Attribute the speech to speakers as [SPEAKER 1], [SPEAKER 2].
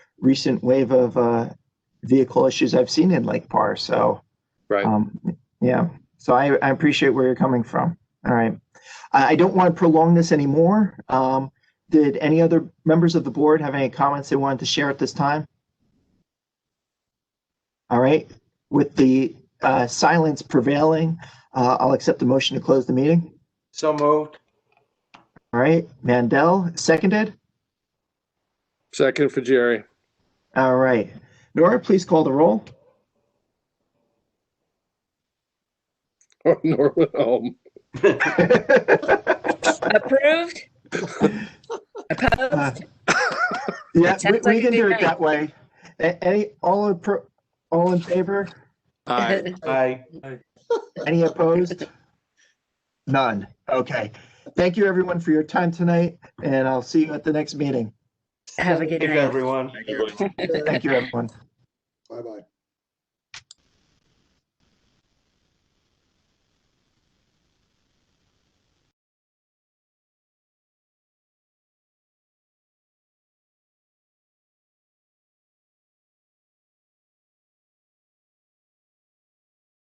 [SPEAKER 1] recent wave of uh, vehicle issues I've seen in Lake Parr. So,
[SPEAKER 2] Right.
[SPEAKER 1] um, yeah. So I, I appreciate where you're coming from. All right. I, I don't want to prolong this anymore. Um, did any other members of the board have any comments they wanted to share at this time? All right. With the uh, silence prevailing, uh, I'll accept the motion to close the meeting.
[SPEAKER 3] So moved.
[SPEAKER 1] All right. Mandel, seconded.
[SPEAKER 2] Second for Jerry.
[SPEAKER 1] All right. Nora, please call the roll.
[SPEAKER 2] Or Norwood Home.
[SPEAKER 4] Approved? Opposed?
[SPEAKER 1] Yeah, we,
[SPEAKER 4] That sounds like
[SPEAKER 1] we
[SPEAKER 4] a
[SPEAKER 1] can
[SPEAKER 4] good
[SPEAKER 1] do it
[SPEAKER 4] night.
[SPEAKER 1] that way. A- Any, all in, pro- all in favor?
[SPEAKER 3] Aye.
[SPEAKER 1] Any opposed? None. Okay. Thank you, everyone, for your time tonight, and I'll see you at the next meeting.
[SPEAKER 4] Have a good
[SPEAKER 3] Thank you,
[SPEAKER 4] night.
[SPEAKER 3] everyone.
[SPEAKER 1] Thank you, everyone.
[SPEAKER 5] Bye-bye.